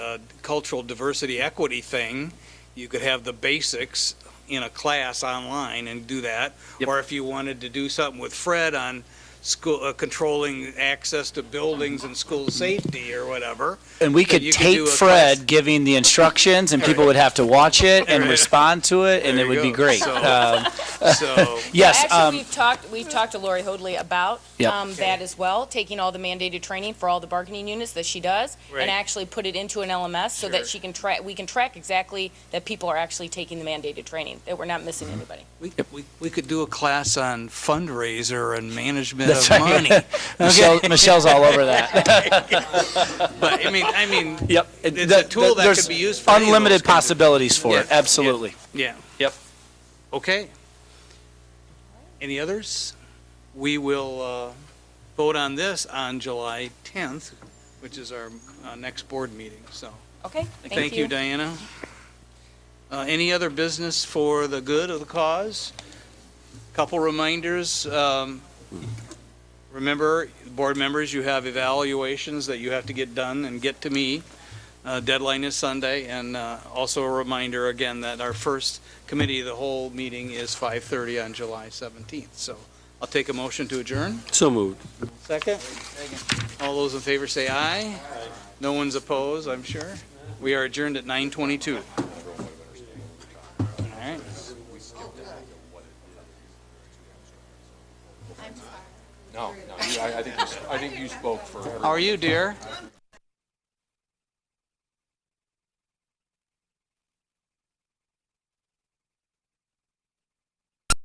uh, cultural diversity equity thing, you could have the basics in a class online and do that. Yep. Or if you wanted to do something with Fred on school, uh, controlling access to buildings and school safety or whatever. And we could you could do tape a Fred class- giving the instructions, and people would have to watch it and There you- respond to it, and there it you would be go. great. So- Um, So, Yes, Actually, um, we've talked, we've talked to Lori Hoadley about Yep. um, that as well, taking all the mandated training for all the bargaining units that she does, Right. and actually put it into an LMS so Sure. that she can track, we can track exactly that people are actually taking the mandated training, that we're not Mm-hmm. missing anybody. we, we, we could do a class on fundraiser and management That's of right. money. Michelle, Michelle's all over that. But, I mean, I mean, Yep. It's a That- tool that there's could be used for any of those Unlimited kinds of- possibilities for it, Yeah. absolutely. yeah. Yep. Okay. Any others? We will uh, vote on this on July 10th, which is our uh, next board meeting, so. Okay, Thank you, Diana. Uh, Any other business for the good of the cause? Couple reminders. um, Remember, board members, you have evaluations that you have to get done and get to me. Uh, Deadline is Sunday. And uh, also a reminder, again, that our first committee of the whole meeting is 5:30 on July 17th. So I'll take a motion to adjourn. So moved. Second? All those in favor say aye. No one's opposed, I'm sure. We are adjourned at 9:22. All right. No, no, you- I, I think, you s- I think you spoke for everyone. How are you, dear?